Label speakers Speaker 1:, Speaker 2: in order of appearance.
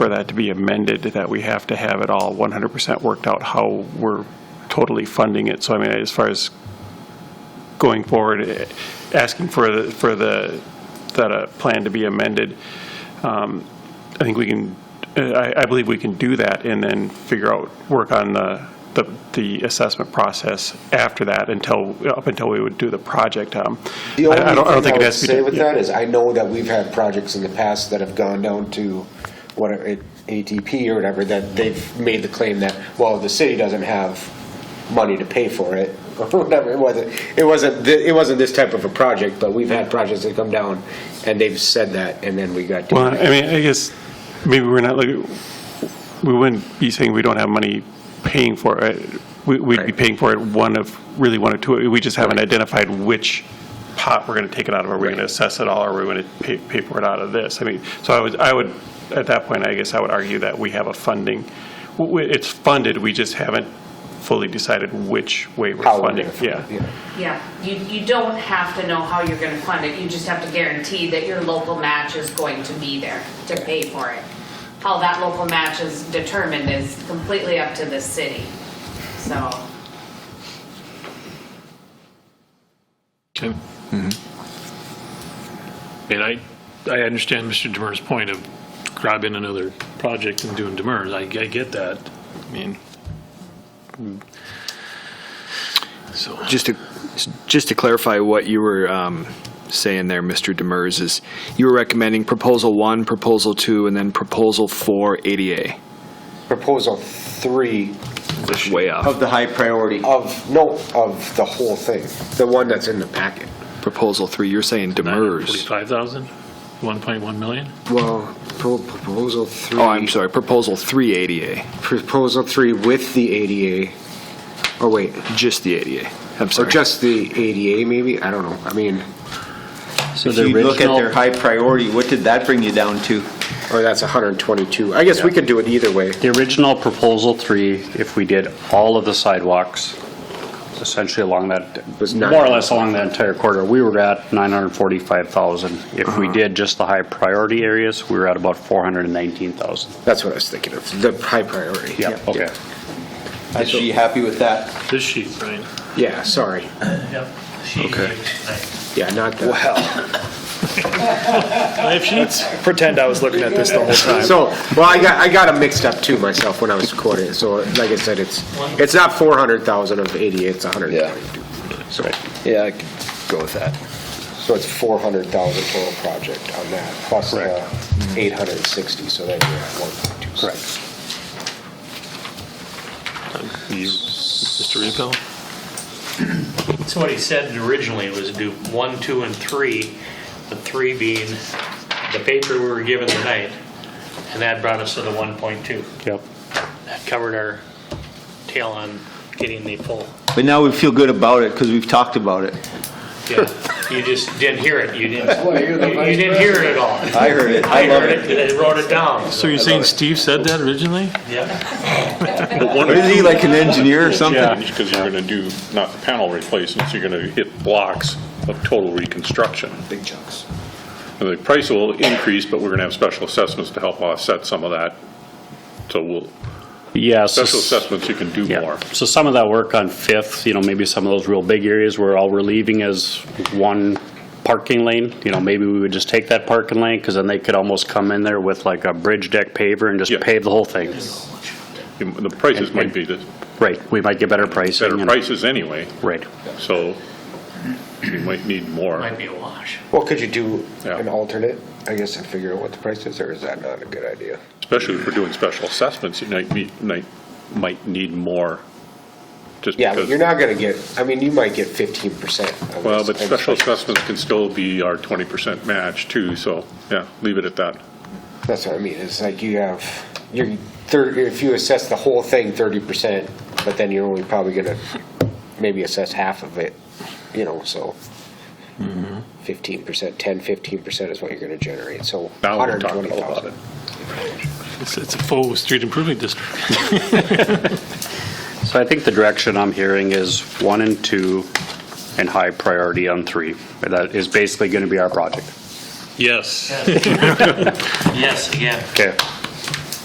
Speaker 1: for that to be amended, that we have to have it all 100% worked out, how we're totally funding it. So I mean, as far as going forward, eh, asking for, the for the, that uh, plan to be amended, um, I think we can, eh, I, I believe we can do that and then figure out, work on the, the- the assessment process after that until, up until we would do the project. um,
Speaker 2: The
Speaker 1: I-
Speaker 2: only
Speaker 1: I don't- I don't
Speaker 2: thing
Speaker 1: think
Speaker 2: I
Speaker 1: it
Speaker 2: would
Speaker 1: has to be-
Speaker 2: say with
Speaker 1: yeah.
Speaker 2: that is, I know that we've had projects in the past that have gone down to what, ATP or whatever, that they've made the claim that, well, the city doesn't have money to pay for it, or whatever, it wasn't, it wasn't, thi- it wasn't this type of a project, but we've had projects that come down, and they've said that, and then we got. to-
Speaker 1: Well, I mean, I guess maybe we're not, like, we wouldn't be saying we don't have money paying for it. We- We'd be
Speaker 2: Right.
Speaker 1: paying for it one of, really one of two. We just haven't identified which pot we're going to take it out of. Are we going to
Speaker 2: Right.
Speaker 1: assess it all, or are we going to pay pay for it out of this? I mean, so I would, I would, at that point, I guess I would argue that we have a funding, w- w- it's funded, we just haven't fully decided which way we're
Speaker 2: How we're
Speaker 1: funding.
Speaker 2: gonna fund it,
Speaker 1: Yeah.
Speaker 3: Yeah, you, you don't have to know how you're gonna fund it, you just have to guarantee that your local match is going to be there to pay for it. How that local match is determined is completely up to the city, so.
Speaker 4: Okay. And I, I understand Mr. Demers' point of grabbing another project and doing Demers. I, I get that. I mean, so.
Speaker 5: Just to, just to clarify what you were um, saying there, Mr. Demers, is you were recommending proposal one, proposal two, and then proposal four ADA.
Speaker 2: Proposal three
Speaker 5: That's way
Speaker 2: Oh.
Speaker 6: Of
Speaker 5: off.
Speaker 6: the high priority.
Speaker 2: of, no, of the whole thing, the one that's in the packet.
Speaker 5: Proposal three, you're saying Demers.
Speaker 4: 945,000? 1.1 million?
Speaker 2: Well, proposal three.
Speaker 5: Oh, I'm sorry, proposal three ADA,
Speaker 2: Proposal three with the ADA, oh wait,
Speaker 5: just the ADA. I'm
Speaker 2: or
Speaker 5: sorry.
Speaker 2: just the ADA maybe, I don't know, I mean,
Speaker 6: So if you look at their high priority, what did that bring you down to?
Speaker 2: or that's 122, I guess we could do it either way.
Speaker 7: The original proposal three, if we did all of the sidewalks, essentially along that,
Speaker 2: Was nine-
Speaker 7: more or less along that entire corridor, we were at 945,000. If we did just the high priority areas, we were at about 419,000.
Speaker 2: That's what I was thinking of, the high priority.
Speaker 7: Yeah, okay.
Speaker 6: Is she happy with that?
Speaker 4: This sheet, Brian.
Speaker 2: Yeah, sorry,
Speaker 4: Yep. Okay.
Speaker 2: yeah, not that.
Speaker 4: I have sheets.
Speaker 8: pretend I was looking at this the whole time.
Speaker 2: So, well, I got, I got them mixed up too myself when I was quoting, it. so like I said, it's, it's not 400,000 of ADA, it's 122. So,
Speaker 5: Yeah, I could go with that.
Speaker 2: so it's 400,000 total project on that, plus uh, the 860, so that you're at 1.2. Correct.
Speaker 4: Mr. Repel?
Speaker 9: So what he said originally was do one, two, and three, the three being the paper we were given tonight, and that brought us to the 1.2.
Speaker 7: Yep.
Speaker 9: That covered our tail on getting the full.
Speaker 6: But now we feel good about it because we've talked about it.
Speaker 9: Yeah, you just didn't hear it, you didn't, you you didn't hear it at all.
Speaker 6: I heard it.
Speaker 9: I heard it, and I wrote it down.
Speaker 4: So you're saying Steve said that originally?
Speaker 9: Yeah,
Speaker 6: What is he, like an engineer or something?
Speaker 10: Because you're going to do not panel replacements, you're going to hit blocks of total reconstruction.
Speaker 6: Big chunks.
Speaker 10: And the price will increase, but we're going to have special assessments to help offset some of that. So we'll,
Speaker 7: Yeah. so
Speaker 10: special
Speaker 7: s-
Speaker 10: assessments, you can do
Speaker 7: Yeah.
Speaker 10: more.
Speaker 7: So some of that work on Fifth, you know, maybe some of those real big areas where all we're leaving is one parking lane, you know, maybe we would just take that parking lane because then they could almost come in there with like a bridge deck paver and just
Speaker 10: Yeah.
Speaker 7: pave the whole thing.
Speaker 10: The prices
Speaker 7: And-
Speaker 10: might be the
Speaker 7: Right, we might get better pricing.
Speaker 10: better
Speaker 7: and-
Speaker 10: prices anyway,
Speaker 7: Right.
Speaker 10: so you might need more.
Speaker 9: might be a wash.
Speaker 2: Well, could you do
Speaker 10: Yeah.
Speaker 2: an alternate, I guess, and figure out what the price is, or is that not a good idea?
Speaker 10: Especially if we're doing special assessments, you might, be- might, might need more. just
Speaker 2: Yeah, but
Speaker 10: because-
Speaker 2: you're not gonna get, I mean, you might get 15%. of
Speaker 10: Well,
Speaker 2: this
Speaker 10: but special
Speaker 2: thing.
Speaker 10: assessments can still be our 20% match too, so, yeah, leave it at that.
Speaker 2: That's what I mean, it's like you have, you're, thir- if you assess the whole thing 30%, but then you're only probably gonna maybe assess half of it, you know, so Mm-hmm. 15%, 10, 15% is what you're gonna generate, so
Speaker 10: Now we're talking about
Speaker 2: 120,000.
Speaker 10: it.
Speaker 4: It's it's a full street improvement district.
Speaker 7: So I think the direction I'm hearing is one and two and high priority on three. That is basically going to be our project.
Speaker 4: Yes.
Speaker 9: Yes, again,
Speaker 7: Okay.